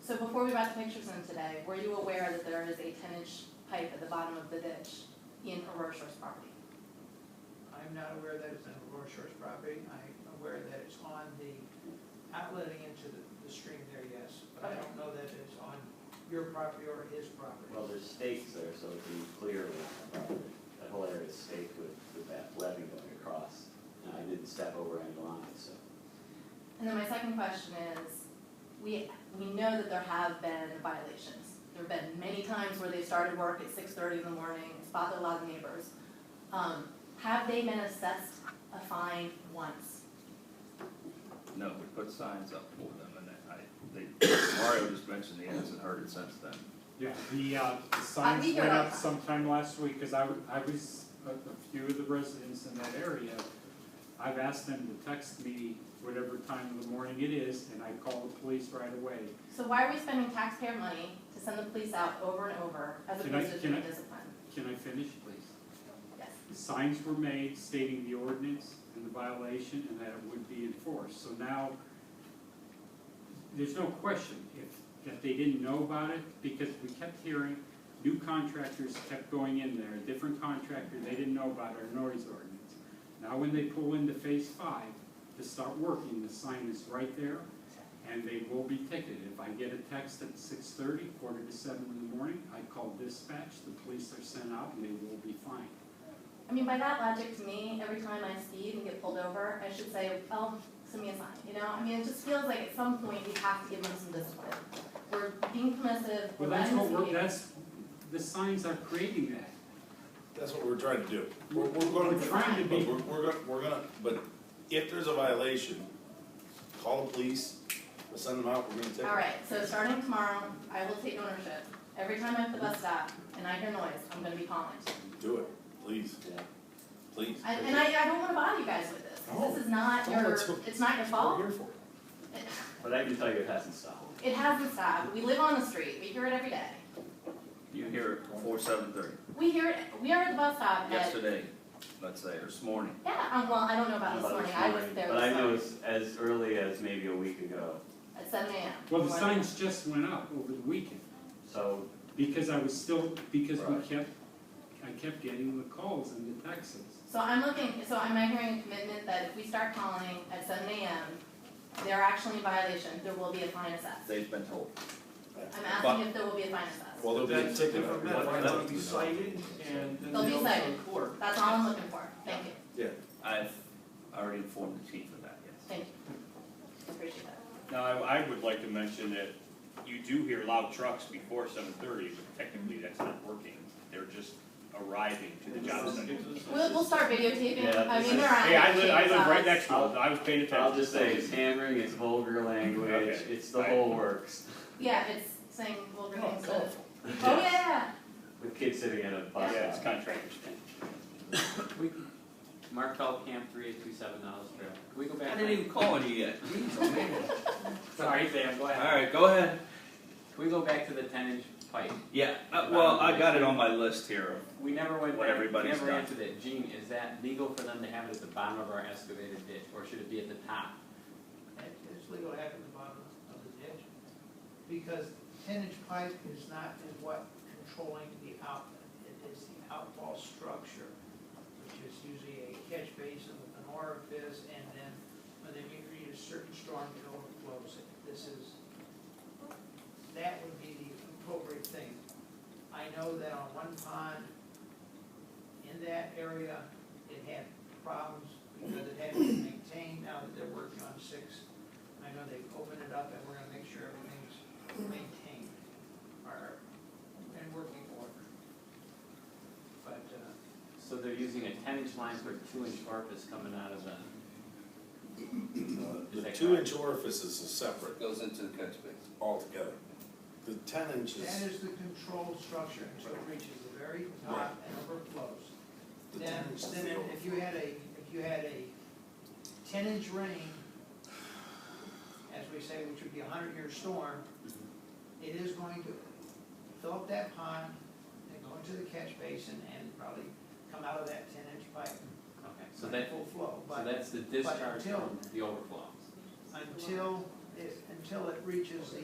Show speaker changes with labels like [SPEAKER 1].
[SPEAKER 1] So before we brought the pictures in today, were you aware that there is a ten inch pipe at the bottom of the ditch in Aurora Shores property?
[SPEAKER 2] I'm not aware that it's on Aurora Shores property, I'm aware that it's on the, outletting into the, the stream there, yes, but I don't know that it's on your property or his property.
[SPEAKER 3] Well, there's stakes there, so it'd be clear with, uh, that whole area is staked with, with that levee going across. And I didn't step over any lines, so.
[SPEAKER 1] And then my second question is, we, we know that there have been violations. There've been many times where they started work at six thirty in the morning, it's bothered a lot of neighbors. Um, have they been assessed a fine once?
[SPEAKER 4] No, we put signs up for them, and I, they, Mario just mentioned he hasn't heard it since then.
[SPEAKER 5] Yeah, the, uh, the signs
[SPEAKER 1] think you're
[SPEAKER 5] went
[SPEAKER 1] right.
[SPEAKER 5] up sometime last week, cause I, w- I was, a, a few of the residents in that area, I've asked them to text me whatever time of the morning it is, and I call the police right away.
[SPEAKER 1] So why are we spending taxpayer money to send the police out over and over as
[SPEAKER 5] Can I-
[SPEAKER 1] opposed to
[SPEAKER 5] can I-
[SPEAKER 1] doing discipline?
[SPEAKER 5] Can I finish, please?
[SPEAKER 1] Yes.
[SPEAKER 5] signs were made stating the ordinance and the violation and that it would be enforced. So now, there's no question if, if they didn't know about it, because we kept hearing, new contractors kept going in there, different contractor, they didn't know about our noise ordinance. Now, when they pull into phase five to start working, the sign is right there, and they will be ticketed. If I get a text at six thirty, quarter to seven in the morning, I call dispatch, the police are sent out, and they will be fined.
[SPEAKER 1] I mean, by that logic, to me, every time I speed and get pulled over, I should say, oh, send me a sign, you know? I mean, it just feels like at some point we have to give them some discipline. We're being permissive, we're
[SPEAKER 5] Well, that's
[SPEAKER 1] letting them
[SPEAKER 5] what we're,
[SPEAKER 1] speed.
[SPEAKER 5] that's, the signs are creating that.
[SPEAKER 6] That's what we're trying to do. We're, we're gonna.
[SPEAKER 5] We're trying to be-
[SPEAKER 6] but We're, we're gonna, we're gonna, but if there's a violation, call the police, we'll send them out, we're gonna take.
[SPEAKER 1] All right, so starting tomorrow, I will take ownership. Every time I'm at the bus stop and I hear noise, I'm gonna be calling.
[SPEAKER 6] Do it, please,
[SPEAKER 3] Yeah.
[SPEAKER 6] please.
[SPEAKER 1] I- And I, I don't wanna bother you guys with this,
[SPEAKER 5] Oh.
[SPEAKER 1] 'cause this is not
[SPEAKER 6] No,
[SPEAKER 1] your,
[SPEAKER 6] it's-
[SPEAKER 1] it's not your fault.
[SPEAKER 6] We're here for it.
[SPEAKER 3] But I can tell you it hasn't stopped.
[SPEAKER 1] It hasn't stopped, we live on the street, we hear it every day.
[SPEAKER 4] You hear it before seven thirty,
[SPEAKER 1] We hear it, we are at the bus stop at,
[SPEAKER 4] yesterday, let's say, or this morning.
[SPEAKER 1] yeah, um, well, I don't know about this
[SPEAKER 3] About
[SPEAKER 1] morning,
[SPEAKER 3] this
[SPEAKER 1] I was
[SPEAKER 3] morning,
[SPEAKER 1] there
[SPEAKER 3] But I
[SPEAKER 1] this
[SPEAKER 3] know
[SPEAKER 1] morning
[SPEAKER 3] it's as early as maybe a week ago,
[SPEAKER 1] at seven AM.
[SPEAKER 5] Well, the
[SPEAKER 1] Why-
[SPEAKER 5] signs just went up over the weekend,
[SPEAKER 3] so
[SPEAKER 5] because I was still, because we
[SPEAKER 3] Right.
[SPEAKER 5] kept, I kept getting the calls and the texts.
[SPEAKER 1] So I'm looking, so am I hearing a commitment that if we start calling at seven AM, they're actually in violation, there will be a fine assessed?
[SPEAKER 4] They've been told.
[SPEAKER 1] I'm asking if there will be a fine assessed.
[SPEAKER 6] Well, there'll be a
[SPEAKER 7] That's a
[SPEAKER 6] ticket.
[SPEAKER 7] different matter,
[SPEAKER 3] What-
[SPEAKER 7] they'll
[SPEAKER 3] what-
[SPEAKER 7] be cited and then
[SPEAKER 1] They'll be
[SPEAKER 7] they'll go to
[SPEAKER 1] cited.
[SPEAKER 7] court.
[SPEAKER 1] That's all I'm looking for, thank you.
[SPEAKER 4] I've already informed the chief of that, yes.
[SPEAKER 1] Thank you. Appreciate that.
[SPEAKER 8] Now, I, I would like to mention that you do hear loud trucks before seven thirty, but technically that's not working. They're just arriving to the job site.
[SPEAKER 1] We'll, we'll start videotaping,
[SPEAKER 3] Yeah,
[SPEAKER 1] I
[SPEAKER 3] this
[SPEAKER 1] mean,
[SPEAKER 3] is-
[SPEAKER 1] they're out.
[SPEAKER 8] Hey, I live, I live right next to them, I was paying attention.
[SPEAKER 3] I'll just say it's hammering, it's vulgar language,
[SPEAKER 8] Okay.
[SPEAKER 3] it's the whole works.
[SPEAKER 1] Yeah, it's saying vulgar
[SPEAKER 6] Oh,
[SPEAKER 1] things. so-
[SPEAKER 6] colorful.
[SPEAKER 1] Oh, yeah,
[SPEAKER 3] With kids sitting at a bus
[SPEAKER 8] Yeah, it's
[SPEAKER 3] stop.
[SPEAKER 8] contractors.
[SPEAKER 9] We, Markel Camp three eight two seven Niles Trail. Can we go back?
[SPEAKER 4] I didn't even call it yet.
[SPEAKER 9] Sorry, Sam, go ahead.
[SPEAKER 4] Alright, go ahead.
[SPEAKER 9] Can we go back to the ten inch pipe?
[SPEAKER 4] Yeah, uh, well, I got it on my list here.
[SPEAKER 9] We never went
[SPEAKER 4] What
[SPEAKER 9] back, we
[SPEAKER 4] everybody's
[SPEAKER 9] never
[SPEAKER 4] done.
[SPEAKER 9] answered it. Gene, is that legal for them to have it at the bottom of our excavated ditch, or should it be at the top?
[SPEAKER 2] It's legal to have at the bottom of the ditch, because ten inch pipe is not in what controlling the outlet, it is the outfall structure, which is usually a catch basin with an orifice, and then when they reach a certain storm, it overflows it, this is, that would be the appropriate thing. I know that on one pond, in that area, it had problems because it hadn't been maintained, now that they're working on six I know they've opened it up and we're gonna make sure everything's maintained or in working order. But, uh,
[SPEAKER 9] So they're using a ten inch line for a two inch orifice coming out of the,
[SPEAKER 6] Uh, The two inch orifices is separate
[SPEAKER 7] Goes into the catch basin.
[SPEAKER 6] altogether. The ten
[SPEAKER 2] that
[SPEAKER 6] inches,
[SPEAKER 2] is the control structure until it reaches the very top and overflows.
[SPEAKER 6] the
[SPEAKER 2] Then,
[SPEAKER 6] ten inches.
[SPEAKER 2] then if you had a, if you had a ten inch rain, as we say, which would be a hundred year storm, it is going to fill up that pond and go into the catch basin and probably come out of that ten inch pipe.
[SPEAKER 9] okay, so that,
[SPEAKER 2] Full flow,
[SPEAKER 9] so
[SPEAKER 2] but.
[SPEAKER 9] that's the discharge
[SPEAKER 2] until-
[SPEAKER 9] from the overflow.
[SPEAKER 2] until, it- until it reaches the